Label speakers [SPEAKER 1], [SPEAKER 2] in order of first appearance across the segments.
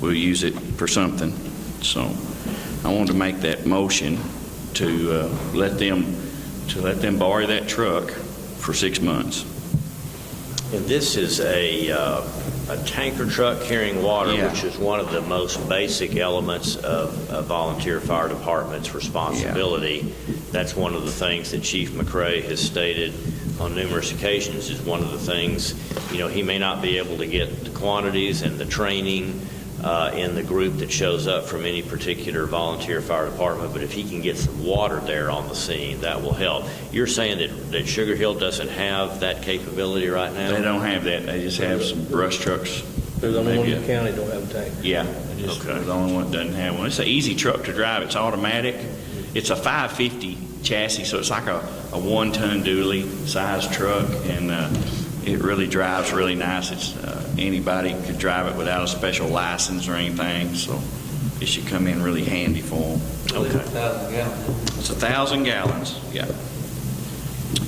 [SPEAKER 1] we'll use it for something. So I wanted to make that motion to uh, let them, to let them borrow that truck for six months.
[SPEAKER 2] And this is a, uh, a tanker truck carrying water,
[SPEAKER 1] Yeah.
[SPEAKER 2] which is one of the most basic elements of a volunteer fire department's responsibility. That's one of the things that Chief McRae has stated on numerous occasions, is one of the things, you know, he may not be able to get the quantities and the training uh, in the group that shows up from any particular volunteer fire department, but if he can get some water there on the scene, that will help. You're saying that, that Sugar Hill doesn't have that capability right now?
[SPEAKER 1] They don't have that, they just have some brush trucks.
[SPEAKER 3] They're the only one in
[SPEAKER 1] Maybe
[SPEAKER 3] the county that don't have a tank.
[SPEAKER 1] Yeah. Just the only one that doesn't have one. It's an easy truck to drive, it's automatic. It's a 550 chassis, so it's like a, a one-ton dually sized truck, and uh, it really drives really nice. It's, uh, anybody could drive it without a special license or anything, so it should come in really handy for them.
[SPEAKER 2] Okay.
[SPEAKER 1] It's a 1,000 gallons, yeah.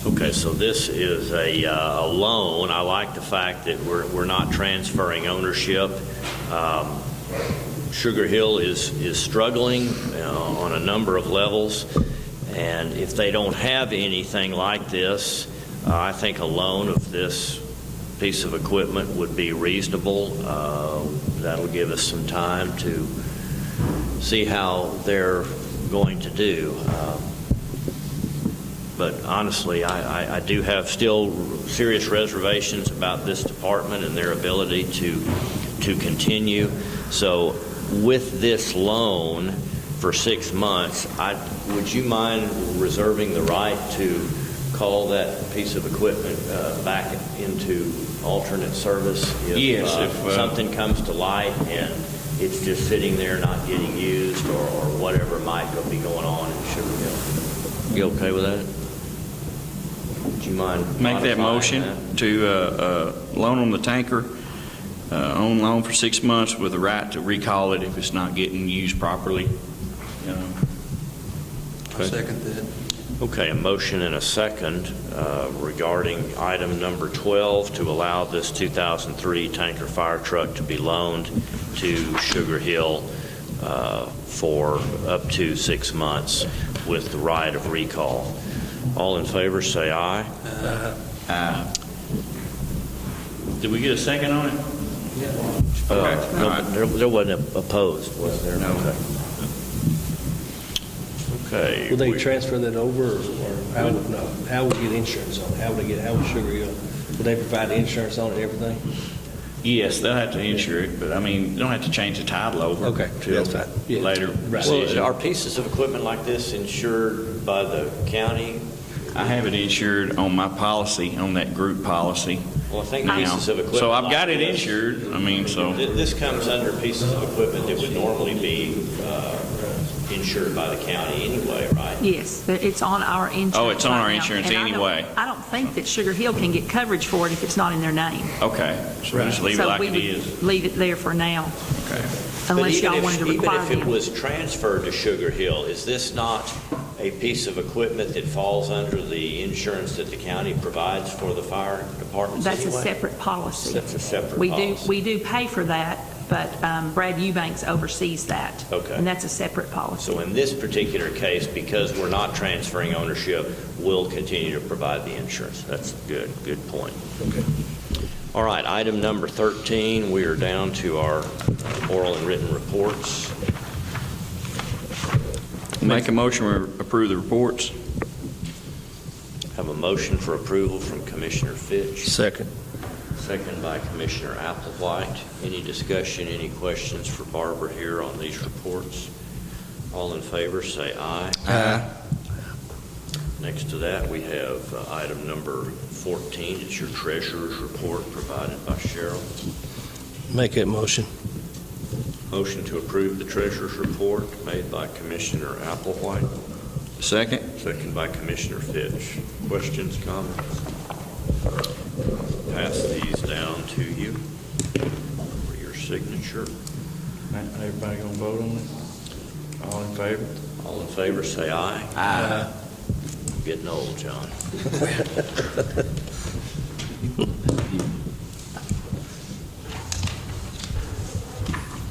[SPEAKER 2] Okay, so this is a, uh, a loan. I like the fact that we're, we're not transferring ownership. Um, Sugar Hill is, is struggling uh, on a number of levels, and if they don't have anything like this, uh, I think a loan of this piece of equipment would be reasonable. Uh, That'll give us some time to see how they're going to do. Um, but honestly, I, I- I do have still serious reservations about this department and their ability to, to continue. So with this loan for six months, I, would you mind reserving the right to call that piece of equipment uh, back into alternate service? if,
[SPEAKER 1] Yes,
[SPEAKER 2] uh,
[SPEAKER 1] if, uh,
[SPEAKER 2] Something comes to light and it's just sitting there not getting used or or whatever might go- be going on in Sugar Hill? You okay with that? Would you mind
[SPEAKER 1] Make that
[SPEAKER 2] modifying
[SPEAKER 1] motion to uh, uh, loan them the tanker, uh, on loan for six months with the right to recall it if it's not getting used properly. Uh, you know.
[SPEAKER 3] Second that.
[SPEAKER 2] Okay, a motion and a second uh, regarding item number 12 to allow this 2003 tanker fire truck to be loaned to Sugar Hill uh, for up to six months with the right of recall. All in favor, say aye.
[SPEAKER 1] Did we get a second on it? Okay.
[SPEAKER 2] Uh, no,
[SPEAKER 1] All right.
[SPEAKER 2] There there wasn't a- opposed, was there?
[SPEAKER 1] No.
[SPEAKER 2] Okay.
[SPEAKER 3] Will they
[SPEAKER 2] we-
[SPEAKER 3] transfer that over, or how would, no, how would we get insurance on it? How would they get, how would Sugar Hill, would they provide insurance on it, and everything?
[SPEAKER 1] Yes, they'll have to insure it, but I mean, you don't have to change the title over.
[SPEAKER 3] Okay,
[SPEAKER 1] till
[SPEAKER 3] that's fine. Yeah.
[SPEAKER 1] Later
[SPEAKER 3] Right.
[SPEAKER 2] Well,
[SPEAKER 1] decision.
[SPEAKER 2] are pieces of equipment like this insured by the county?
[SPEAKER 1] I have it insured on my policy, on that group policy.
[SPEAKER 2] Well, I think
[SPEAKER 1] now.
[SPEAKER 2] pieces of equipment.
[SPEAKER 1] So I've
[SPEAKER 2] like
[SPEAKER 1] got it
[SPEAKER 2] this-
[SPEAKER 1] insured, I mean, so.
[SPEAKER 2] Th- This comes under pieces of equipment that would normally be uh, insured by the county anyway, right?
[SPEAKER 4] Yes, but it's on our insurance.
[SPEAKER 1] Oh, it's on
[SPEAKER 4] right
[SPEAKER 1] our
[SPEAKER 4] now,
[SPEAKER 1] insurance
[SPEAKER 4] and I don't-
[SPEAKER 1] anyway.
[SPEAKER 4] I don't think that Sugar Hill can get coverage for it if it's not in their name.
[SPEAKER 1] Okay, so just leave it like it
[SPEAKER 4] So we
[SPEAKER 1] is.
[SPEAKER 4] would leave it there for now,
[SPEAKER 1] Okay.
[SPEAKER 2] But
[SPEAKER 4] unless
[SPEAKER 2] even
[SPEAKER 4] y'all
[SPEAKER 2] if-
[SPEAKER 4] wanted to require
[SPEAKER 2] Even if it
[SPEAKER 4] them.
[SPEAKER 2] was transferred to Sugar Hill, is this not a piece of equipment that falls under the insurance that the county provides for the fire departments
[SPEAKER 4] That's a
[SPEAKER 2] anyway?
[SPEAKER 4] separate policy.
[SPEAKER 2] That's a separate
[SPEAKER 4] We do,
[SPEAKER 2] policy.
[SPEAKER 4] we do pay for that, but um, Brad Eubanks oversees that.
[SPEAKER 2] Okay.
[SPEAKER 4] And that's a separate policy.
[SPEAKER 2] So in this particular case, because we're not transferring ownership, we'll continue to provide the insurance. That's good, good point. All right, item number 13, we are down to our oral and written reports.
[SPEAKER 1] Make a motion, we approve the reports.
[SPEAKER 2] Have a motion for approval from Commissioner Fitch,
[SPEAKER 3] Second.
[SPEAKER 2] second by Commissioner Applewhite. Any discussion, any questions for Barbara here on these reports? All in favor, say aye. Next to that, we have uh, item number 14. It's your treasurer's report provided by Cheryl.
[SPEAKER 3] Make that motion.
[SPEAKER 2] Motion to approve the treasurer's report made by Commissioner Applewhite,
[SPEAKER 1] Second?
[SPEAKER 2] second by Commissioner Fitch. Questions, comments? Pass these down to you for your signature.
[SPEAKER 1] Everybody gonna vote on it? All in favor?
[SPEAKER 2] All in favor, say aye. Aye. Getting old, John.